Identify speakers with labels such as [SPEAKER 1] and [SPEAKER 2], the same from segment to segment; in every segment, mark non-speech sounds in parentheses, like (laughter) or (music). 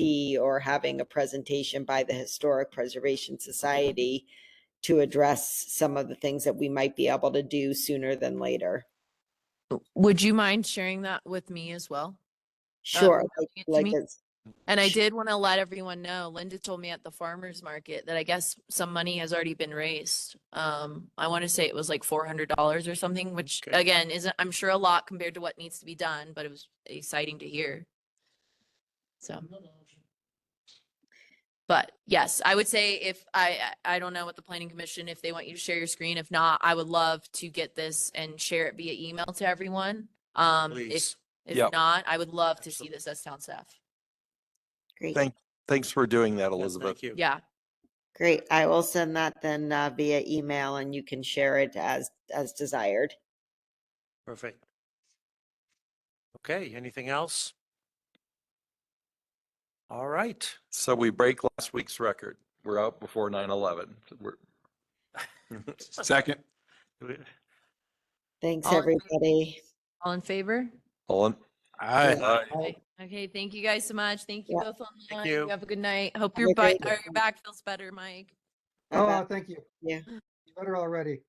[SPEAKER 1] D or having a presentation by the Historic Preservation Society to address some of the things that we might be able to do sooner than later.
[SPEAKER 2] Would you mind sharing that with me as well? Um,
[SPEAKER 1] Sure. like-
[SPEAKER 2] it to
[SPEAKER 1] like
[SPEAKER 2] me?
[SPEAKER 1] it's-
[SPEAKER 2] And I
[SPEAKER 1] Sh-
[SPEAKER 2] did want to let everyone know, Linda told me at the farmer's market that I guess some money has already been raised. Um, I want to say it was like four hundred dollars or something, which
[SPEAKER 3] Okay.
[SPEAKER 2] again, isn't, I'm sure a lot compared to what needs to be done, but it was exciting to hear. So. But yes, I would say if I, I I don't know what the planning commission, if they want you to share your screen, if not, I would love to get this and share it via email to everyone. Um, if,
[SPEAKER 3] Please.
[SPEAKER 2] if
[SPEAKER 4] Yep.
[SPEAKER 2] not, I would love to see this as town staff.
[SPEAKER 1] Great.
[SPEAKER 4] Thank- Thanks for doing that,
[SPEAKER 3] Yes,
[SPEAKER 4] Elizabeth.
[SPEAKER 3] Thank you.
[SPEAKER 2] Yeah.
[SPEAKER 1] Great. I will send that then uh, via email and you can share it as, as desired.
[SPEAKER 3] Perfect. Okay, anything else? All right. (laughs)
[SPEAKER 4] So we break last week's record. We're out before 9/11. We're-
[SPEAKER 5] Second.
[SPEAKER 1] Thanks,
[SPEAKER 2] All in favor?
[SPEAKER 1] everybody.
[SPEAKER 2] All in favor?
[SPEAKER 4] All in-
[SPEAKER 5] Aye.
[SPEAKER 4] Aye.
[SPEAKER 2] Okay, thank you guys so much. Thank you
[SPEAKER 1] Yeah.
[SPEAKER 2] both online.
[SPEAKER 3] you.
[SPEAKER 2] Have a good night. Hope
[SPEAKER 1] Have
[SPEAKER 2] your
[SPEAKER 1] a great
[SPEAKER 2] bite or
[SPEAKER 1] evening.
[SPEAKER 2] your back feels better, Mike.
[SPEAKER 6] Oh,
[SPEAKER 1] Bye-bye.
[SPEAKER 6] uh, thank you.
[SPEAKER 1] Yeah.
[SPEAKER 6] It's Better already.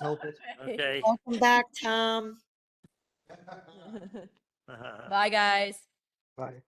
[SPEAKER 2] (laughs)
[SPEAKER 6] hopeless.
[SPEAKER 3] Okay.
[SPEAKER 1] Welcome back, Tom.
[SPEAKER 3] Uh-huh.
[SPEAKER 2] Bye, guys.
[SPEAKER 6] Bye.